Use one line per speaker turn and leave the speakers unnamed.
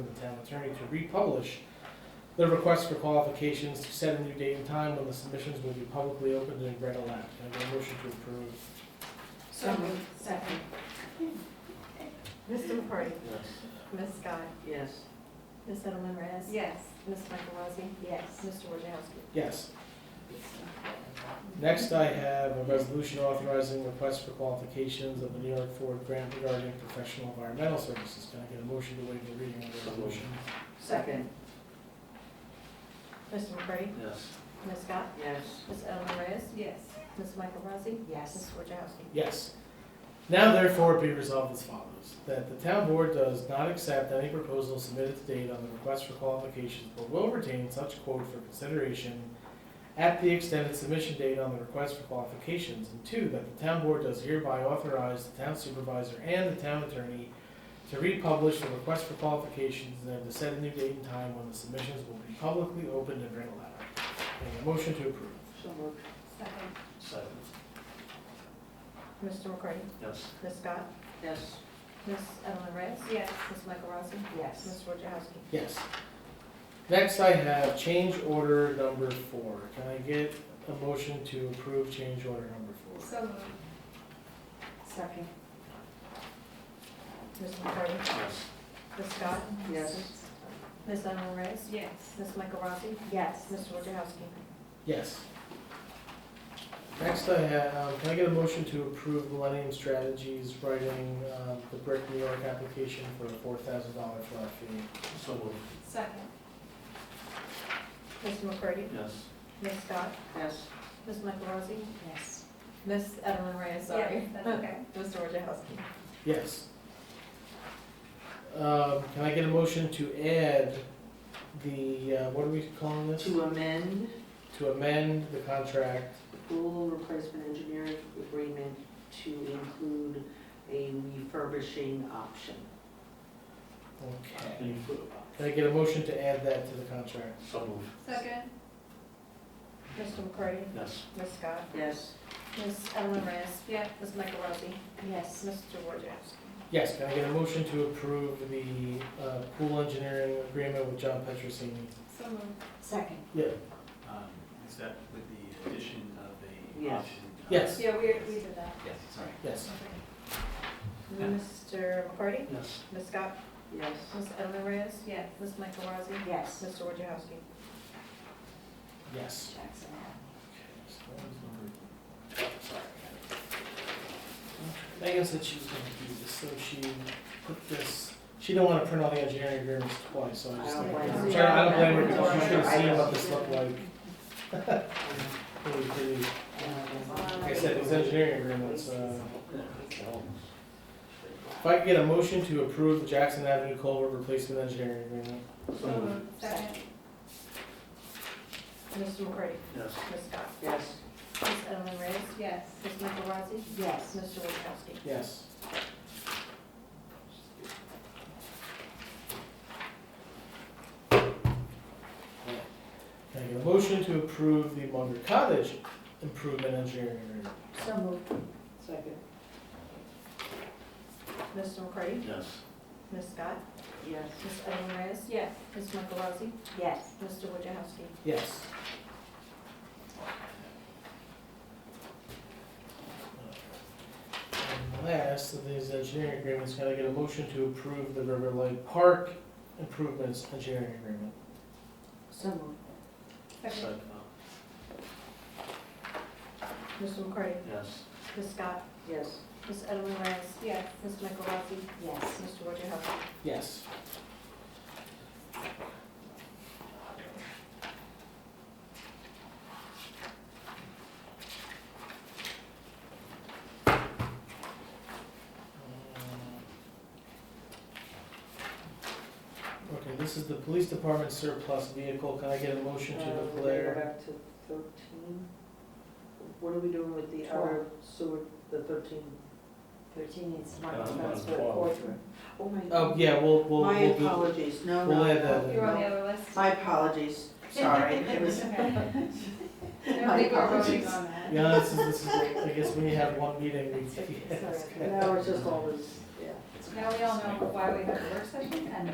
the town attorney to republish the request for qualifications to set a new date and time when the submissions will be publicly opened and read aloud. Can I get a motion to approve?
So moved. Second.
Mr. McCarty?
Yes.
Ms. Scott?
Yes.
Ms. Edelman Reyes?
Yes.
Ms. Michael Rossi?
Yes.
Mr. Wojciechowski?
Yes. Next, I have a resolution authorizing request for qualifications of the New York Ford grant regarding professional environmental services. Can I get a motion to waive the reading of the resolution?
Second.
Mr. McCarty?
Yes.
Ms. Scott?
Yes.
Ms. Edelman Reyes?
Yes.
Ms. Michael Rossi? Ms.
Yes.
Wojciechowski?
Yes. Now therefore be resolved as follows, that the town board does not accept any proposal submitted to date on the request for qualifications, but will retain such quote for consideration at the extended submission date on the request for qualifications, and two, that the town board does hereby authorize the town supervisor and the town attorney to republish the request for qualifications and to set a new date and time when the submissions will be publicly opened and read aloud. And a motion to approve.
So moved.
Second.
Second.
Mr. McCarty?
Yes.
Ms. Scott?
Yes.
Ms. Edelman Reyes?
Yes.
Ms. Michael Rossi?
Yes.
Ms. Wojciechowski?
Yes. Next, I have change order number four. Can I get a motion to approve change order number four?
So moved. Second.
Mr. McCarty?
Yes.
Ms. Scott?
Yes.
Ms. Edelman Reyes?
Yes.
Ms. Michael Rossi?
Yes.
Mr. Wojciechowski?
Yes. Next, I have, um, can I get a motion to approve Millennium Strategies writing um, the Brick New York application for a four thousand dollar flat fee?
So moved.
Second.
Mr. McCarty?
Yes.
Ms. Scott?
Yes.
Ms. Michael Rossi?
Yes.
Ms. Edelman Reyes, sorry.
Yes, that's okay.
Mr. Wojciechowski?
Yes. Um, Can I get a motion to add the, uh, what are we calling this?
To amend
To amend the contract
the pool replacement engineering agreement to include a refurbishing option.
Okay.
Any further?
Can I get a motion to add that to the contract?
So moved.
Second.
Mr. McCarty?
Yes.
Ms. Scott?
Yes.
Ms. Edelman Reyes?
Yeah.
Ms. Michael Rossi?
Yes.
Mr. Wojciechowski?
Yes, can I get a motion to approve the uh, pool engineering agreement with John Petrosini?
So moved.
Second.
Yeah,
Um, Is that with the addition of a
Yes.
option?
Yes.
Yeah, we, we did that.
Yes, sorry.
yes.
Mr. McCarty?
Yes.
Ms. Scott?
Yes.
Ms. Edelman Reyes?
Yes.
Ms. Michael Rossi?
Yes.
Mr. Wojciechowski?
Yes.
Jackson.
Megan said she was gonna do this, so she put this, she didn't wanna print all the engineering agreements twice, so I just
I
like.
don't
blame
which
her.
I don't blame her, because
Yeah.
she should've seen what this looked like. Really, really- Like I said, these engineering agreements, uh, If I could get a motion to approve the Jackson Avenue Culvert Replacement Engineering Agreement.
So moved.
Second. Mr. McCarty?
Yes.
Ms. Scott?
Yes.
Ms. Edelman Reyes?
Yes.
Ms. Michael Rossi?
Yes.
Mr. Wojciechowski?
Yes. Can I get a motion to approve the Munger Cottage Improvement Engineering Agreement?
So moved.
Second.
Mr. McCarty?
Yes.
Ms. Scott?
Yes.
Ms. Edelman Reyes?
Yes.
Ms. Michael Rossi?
Yes.
Mr. Wojciechowski?
Yes. And Last of these engineering agreements, can I get a motion to approve the River Light Park Improvements Engineering Agreement?
So moved.
Second.
Mr. McCarty?
Yes.
Ms. Scott?
Yes.
Ms. Edelman Reyes?
Yes.
Ms. Michael Rossi?
Yes.
Mr. Wojciechowski?
Yes. Uh, Okay, this is the police department surplus vehicle. Can I get a motion to
Uh, we gotta Go
declare?
back to thirteen. What are we doing with the other sewer, the thirteen? Thirteen is
not Uh, that's for twelve.
quarter. Oh, my.
Oh, yeah, we'll, we'll,
My
we'll do,
apologies, no, no.
we'll add that in.
You're on the other list.
My apologies, sorry, it was.
I think we're voting
apologies.
on that.
Yeah, this is, this is, I guess when you have one meeting, we,
Sorry.
Now it's just always, yeah.
Now we all know why we have a work session and